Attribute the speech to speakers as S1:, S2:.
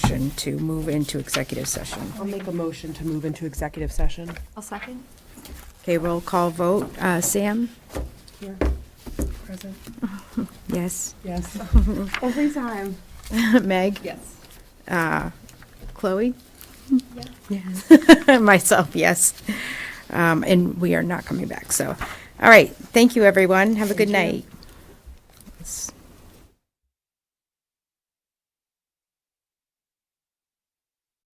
S1: motion to move into executive session.
S2: I'll make a motion to move into executive session.
S3: I'll second.
S1: Okay, roll call vote. Uh, Sam?
S2: Here, present.
S1: Yes.
S2: Yes.
S3: Every time.
S1: Meg? Uh,
S3: Yes.
S1: Chloe?
S3: Yeah.
S1: Yes. Myself, yes. Um, And we are not coming back, so. All right, thank you, everyone. Have a good night.